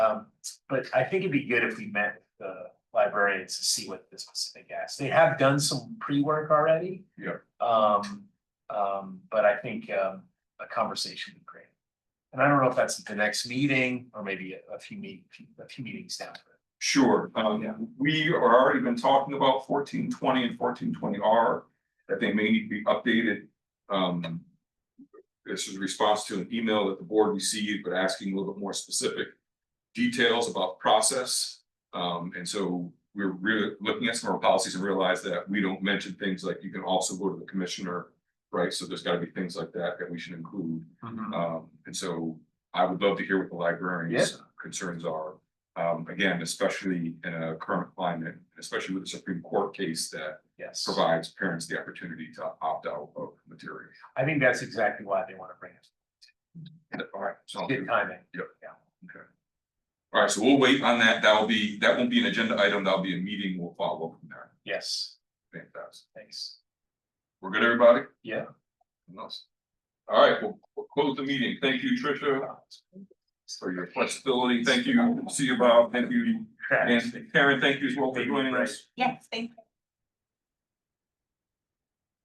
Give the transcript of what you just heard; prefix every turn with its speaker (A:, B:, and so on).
A: Um, but I think it'd be good if we met with the librarians to see what the specific asks. They have done some pre-work already.
B: Yeah.
A: Um, um, but I think um a conversation would be great. And I don't know if that's at the next meeting or maybe a- a few meet, a few meetings down.
B: Sure,
A: Yeah.
B: um, we are already been talking about fourteen twenty and fourteen twenty R, that they may need to be updated. Um. This is a response to an email that the board received, but asking a little bit more specific details about process. Um, and so we're really looking at some of our policies and realize that we don't mention things like you can also go to the commissioner. Right, so there's gotta be things like that that we should include. Um, and so I would love to hear what the librarians' uh, concerns are. Um, again, especially in a current climate, especially with the Supreme Court case that
A: Yes,
B: provides parents the opportunity to opt out of material.
A: I think that's exactly why they want to bring it.
B: All right, so,
A: Good
B: all
A: timing.
B: right, so we'll wait on that. That'll be, that won't be an agenda item. That'll be a meeting. We'll follow up from there.
A: Yes,
B: Fantastic.
A: thanks.
B: We're good, everybody?
A: Yeah.
B: Nice. All right, we'll, we'll close the meeting. Thank you, Tricia, for your flexibility. Thank you. See you, Bob. Thank you. And Karen, thank you as well for joining us.
C: Yes, thank you.